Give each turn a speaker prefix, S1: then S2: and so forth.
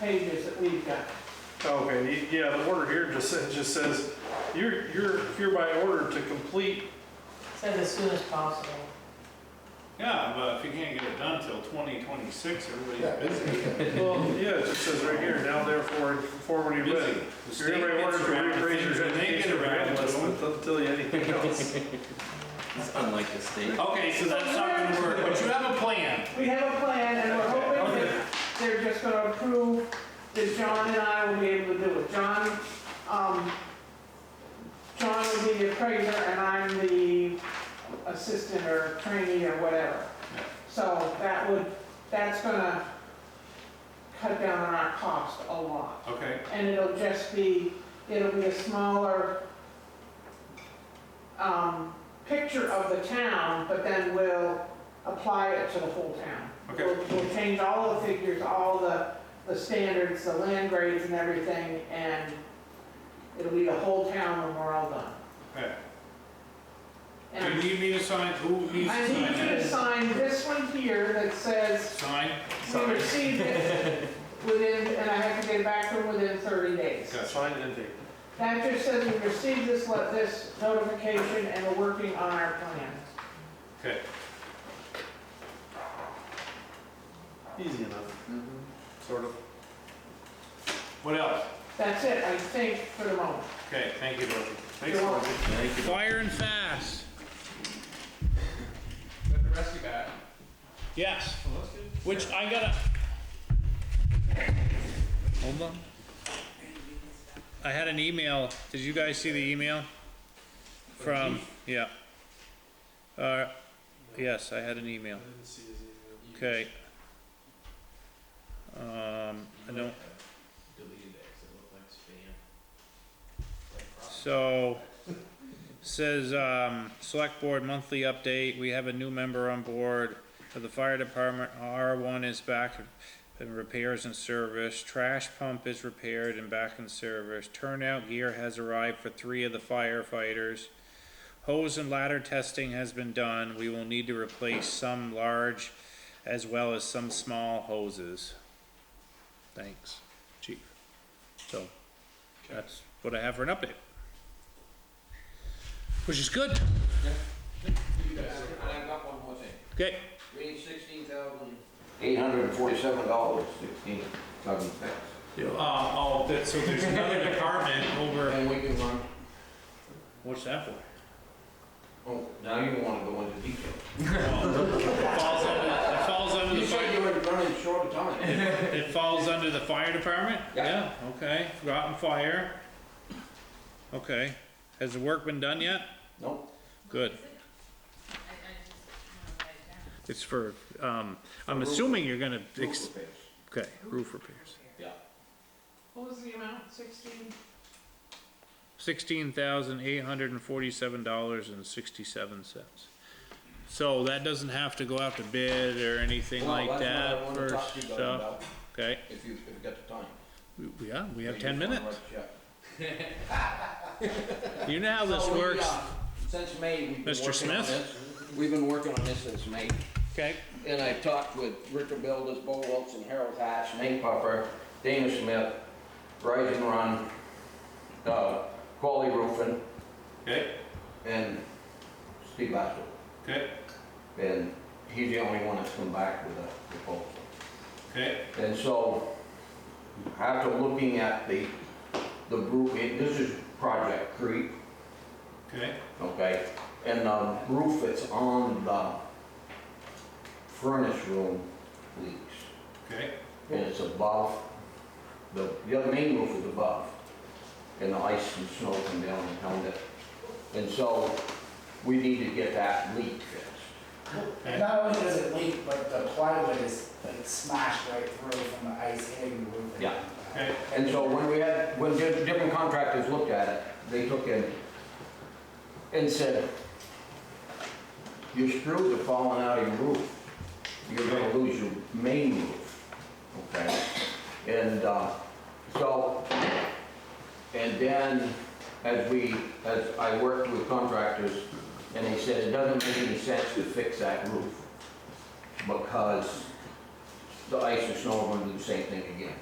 S1: pages that we've got.
S2: Okay, y- yeah, the order here just says, just says, you're, you're hereby ordered to complete,
S3: Says as soon as possible.
S4: Yeah, but if you can't get it done till twenty twenty-six,
S5: Yeah,
S4: everybody's busy.
S5: busy.
S2: well, yeah, it just says right here, now therefore in conformity
S4: Busy.
S2: with.
S4: The
S2: You're
S4: state
S2: hereby
S4: gets
S2: ordered to
S4: around to
S2: reappraise
S4: things
S2: your
S4: when they
S2: education
S4: get around to
S2: regardless,
S4: them.
S2: but doesn't tell you anything else.
S6: It's unlike the state.
S4: Okay, so that's not gonna work, but you have a plan.
S1: We have a plan and we're hoping that they're just gonna approve, that John and I will be able to do it. John, um, John will be the appraiser and I'm the assistant or trainee or whatever. So that would, that's gonna cut down on our cost a lot.
S4: Okay,
S1: And it'll just be, it'll be a smaller, um, picture of the town, but then we'll apply it to the whole town.
S4: Okay.
S1: We'll, we'll change all the figures, all the, the standards, the land grades and everything, and it'll be the whole town when we're all done.
S4: okay. Do
S1: And
S4: you need me to sign, who needs to sign?
S1: I need you to
S4: it?
S1: sign this one here that says
S4: Sign,
S1: we received it within, and I have to get it back from within 30 days.
S4: Gotcha.
S2: Sign and date.
S1: That just says we received this, let this notification, and we're working on our plan.
S4: okay.
S2: Easy enough, sort of.
S4: What else?
S1: That's it, I think, for the moment.
S4: Okay, thank you, Dorothy.
S1: You're welcome.
S6: Thank you.
S4: Fire and fast.
S5: Got the rest you got. Oh,
S4: Yes. Which I gotta. Hold on. I had an email. Did you guys see the email? From, yeah. Uh, yes, I had an email.
S2: didn't see his email.
S4: Okay. Um, I don't,
S5: Deleted it, 'cause it looked like spam.
S4: so, says, um, select board monthly update, we have a new member on board for the fire department, R one is back in repairs and service, trash pump is repaired and back in service, turnout gear has arrived for three of the firefighters. Hose and ladder testing has been done, we will need to replace some large as well as some small hoses. Thanks, chief. So, that's what I have for an update. Which is good.
S7: And I've got one more thing.
S4: Okay.
S7: We need sixteen thousand. Eight hundred and forty-seven dollars, sixteen, seven cents.
S4: Um, oh, that, so there's another department over.
S7: And we can run,
S4: What's that for?
S7: oh, now you wanna go into detail.
S4: It falls under, it falls under
S7: You
S4: the
S7: said
S4: fire,
S7: you were running short of time.
S4: it falls under the fire department?
S7: Yeah.
S4: okay, forgotten fire. Okay, has the work been done yet?
S7: Nope.
S4: Good. It's for, um, I'm assuming you're gonna, ex-
S7: Roof repairs.
S4: okay, roof repairs.
S1: What was the amount, 16?
S4: sixteen thousand eight hundred and forty-seven dollars and sixty-seven cents. So that doesn't have to go out to bid or anything
S7: Well,
S4: like
S7: that's what I
S4: that
S7: wanna
S4: for
S7: talk to you guys
S4: stuff,
S7: about,
S4: okay?
S7: If you, if you got the time.
S4: We- Yeah, we have
S7: You
S4: ten
S7: wanna
S4: minutes.
S7: write a check.
S4: You know how this
S7: So we,
S4: works,
S7: uh, Since May, we've been
S4: Mr.
S7: working on
S4: Smith?
S7: this. We've been working on this since May.
S4: okay?
S7: And I talked with Richard Builders, Bo Wilson, Harold Hatch, Nate Puffer, Dana Smith, Rise and Run, uh, Quality Roofing,
S4: Okay,
S7: and Steve Bassel.
S4: okay,
S7: And he's the only one that's come back with a proposal.
S4: okay,
S7: And so, after looking at the, the roof, and this is Project Creep,
S4: okay,
S7: okay? And the roof that's on the furnace room leaks.
S4: okay,
S7: and it's above, the, the other main roof is above, and the ice and snow come down and held it. And so, we need to get that leak fixed.
S8: Not only does it leak, but the plywood is like smashed right through from the ice hitting the roof.
S7: Yeah.
S4: okay,
S7: And so when we had, when di- different contractors looked at it, they took in and said, your screws are falling out of your roof. You're gonna lose your main roof, okay? And, uh, so, and then as we, as I worked with contractors, and they said, it doesn't make any sense to fix that roof because the ice and snow are gonna do the same thing again.